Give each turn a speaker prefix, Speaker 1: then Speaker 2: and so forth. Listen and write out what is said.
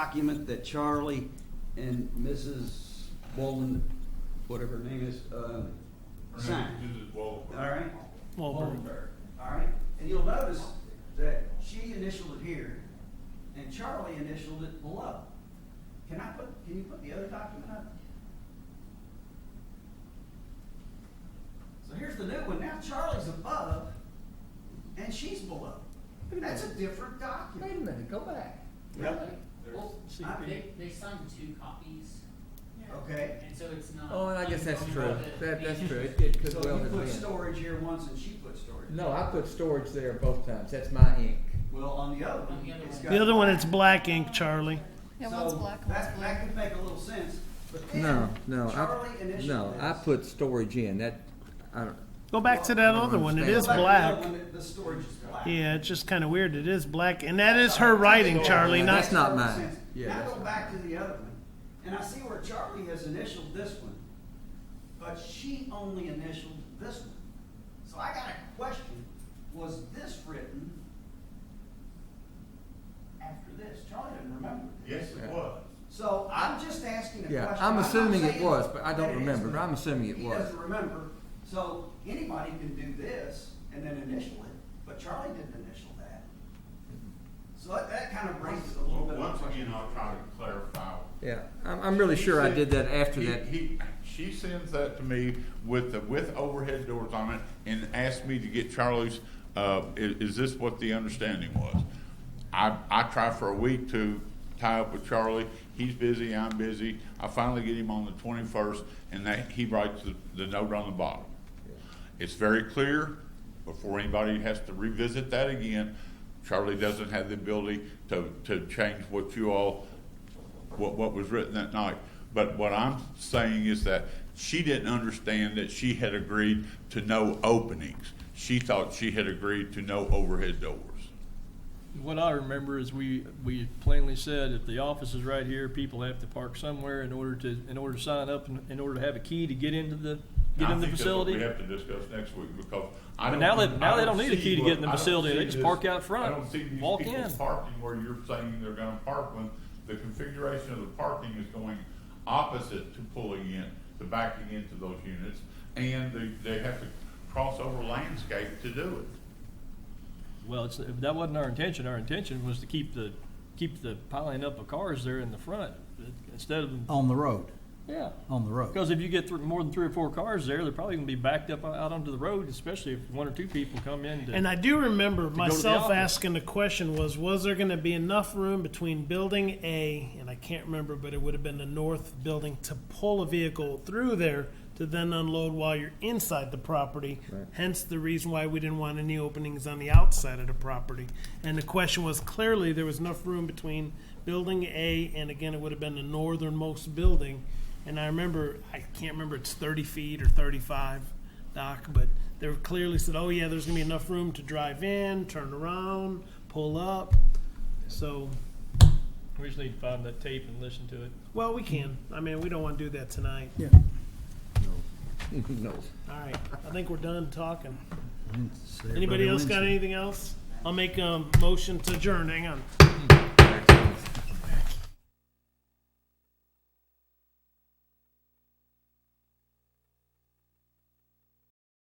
Speaker 1: document that Charlie and Mrs. Bolden, whatever her name is, uh, signed.
Speaker 2: This is Walter.
Speaker 1: All right?
Speaker 3: Wahlberg.
Speaker 1: Wahlberg, All right? And you'll notice that she initialed it here and Charlie initialed it below. Can I put, can you put the other document up? So here's the new one. Now Charlie's above and she's below. That's a different
Speaker 3: Wait a
Speaker 1: document.
Speaker 3: minute, go back.
Speaker 1: Yep.
Speaker 4: Well,
Speaker 3: See,
Speaker 1: I mean,
Speaker 4: they, they signed two copies,
Speaker 1: okay.
Speaker 4: and so it's not.
Speaker 3: Oh, and I guess that's true.
Speaker 4: unusual that
Speaker 3: That, that's
Speaker 4: they-
Speaker 3: true. It, it could
Speaker 1: So
Speaker 3: well
Speaker 1: you
Speaker 3: have
Speaker 1: put
Speaker 3: been.
Speaker 1: storage here once and she put storage.
Speaker 3: No, I put storage there both times. That's my ink.
Speaker 1: Well, on the other
Speaker 4: On
Speaker 1: one,
Speaker 4: the other
Speaker 1: it's
Speaker 4: one.
Speaker 1: got.
Speaker 5: The other one, it's black ink, Charlie.
Speaker 6: Yeah,
Speaker 1: So
Speaker 6: one's black, one's
Speaker 1: That,
Speaker 6: blue.
Speaker 1: that could make a little sense, but then.
Speaker 3: No, no,
Speaker 1: Charlie
Speaker 3: I,
Speaker 1: initialed
Speaker 3: no, I
Speaker 1: this.
Speaker 3: put storage in. That, I don't,
Speaker 5: Go back to that other one. It is
Speaker 1: Go back to
Speaker 5: black.
Speaker 1: The other one, the storage is black.
Speaker 5: Yeah, it's just kind of weird. It is black, and that is her writing, Charlie.
Speaker 3: Yeah,
Speaker 5: Not
Speaker 3: that's not
Speaker 1: Makes
Speaker 3: mine.
Speaker 1: sense.
Speaker 3: Yeah,
Speaker 1: Now
Speaker 3: that's
Speaker 1: go back to the other one, and I see where Charlie has initialed this one, but she only initialed this one. So I got a question, was this written after this? Charlie didn't remember.
Speaker 2: Yes, it was.
Speaker 1: So I'm just asking a question.
Speaker 3: yeah, I'm
Speaker 1: not
Speaker 3: assuming it
Speaker 1: saying
Speaker 3: was, but I
Speaker 1: that
Speaker 3: don't
Speaker 1: it
Speaker 3: remember.
Speaker 1: isn't.
Speaker 3: But I'm assuming it
Speaker 1: He
Speaker 3: was.
Speaker 1: doesn't remember, so anybody can do this and then initial it, but Charlie didn't initial that. So that, that kind of raises a little bit of a
Speaker 2: Once
Speaker 1: question.
Speaker 2: again, I'll try to clarify.
Speaker 3: Yeah, I'm, I'm really sure I did that after
Speaker 2: He-
Speaker 3: that.
Speaker 2: He, she sends that to me with the, with overhead doors on it and asked me to get Charlie's, uh, i- is, this what the understanding was? I, I tried for a week to tie up with Charlie. He's busy, I'm busy. I finally get him on the twenty-first and that, he writes the, the note on the bottom. It's very clear, before anybody has to revisit that again, Charlie doesn't have the ability to, to change what you all, what, what was written that night. But what I'm saying is that she didn't understand that she had agreed to no openings. She thought she had agreed to no overhead doors.
Speaker 7: What I remember is we, we plainly said if the office is right here, people have to park somewhere in order to, in order to sign up, and in order to have a key to get into the, get
Speaker 2: I
Speaker 7: in the
Speaker 2: think that's what
Speaker 7: facility.
Speaker 2: We have to discuss next week because I
Speaker 7: But
Speaker 2: don't.
Speaker 7: now they-
Speaker 2: I
Speaker 7: now they don't need a
Speaker 2: see
Speaker 7: key to
Speaker 2: what-
Speaker 7: get in the
Speaker 2: I don't
Speaker 7: facility. They
Speaker 2: see
Speaker 7: just
Speaker 2: this-
Speaker 7: park out front,
Speaker 2: I don't see these
Speaker 7: walk
Speaker 2: people
Speaker 7: in.
Speaker 2: Parking where you're saying they're gonna park when the configuration of the parking is going opposite to pulling in, to backing into those units. And they, they have to cross over landscape to do
Speaker 7: Well, it's, that wasn't our intention. Our intention was to keep the, keep the piling up of cars there in the front instead of,
Speaker 8: On the road,
Speaker 7: yeah.
Speaker 8: on the road.
Speaker 7: Because if you get thr more than three or four cars there, they're probably gonna be backed up out onto the road, especially if one or two people come in to.
Speaker 5: And I do remember
Speaker 7: the
Speaker 5: myself
Speaker 7: office.
Speaker 5: asking the question was was there going to be enough room between building A and I can't remember but it would have been the north building to pull a vehicle through there to then unload while you're inside the property. Hence the reason why we didn't want any openings on the outside of the property. And the question was clearly there was enough room between building A and again it would have been the northernmost building. And I remember I can't remember it's 30 feet or 35 dock, but they were clearly said, "Oh yeah, there's gonna be enough room to drive in, turn around, pull up." So,
Speaker 7: We just need to find that tape and listen to it.
Speaker 5: well, we can. I mean, we don't want to do that tonight.
Speaker 8: Yeah.
Speaker 3: No.
Speaker 5: All right, I think we're done talking.
Speaker 8: It's everybody
Speaker 5: Anybody else
Speaker 8: Wednesday.
Speaker 5: got anything else? I'll make a motion to adjourn. Hang on.
Speaker 3: That's-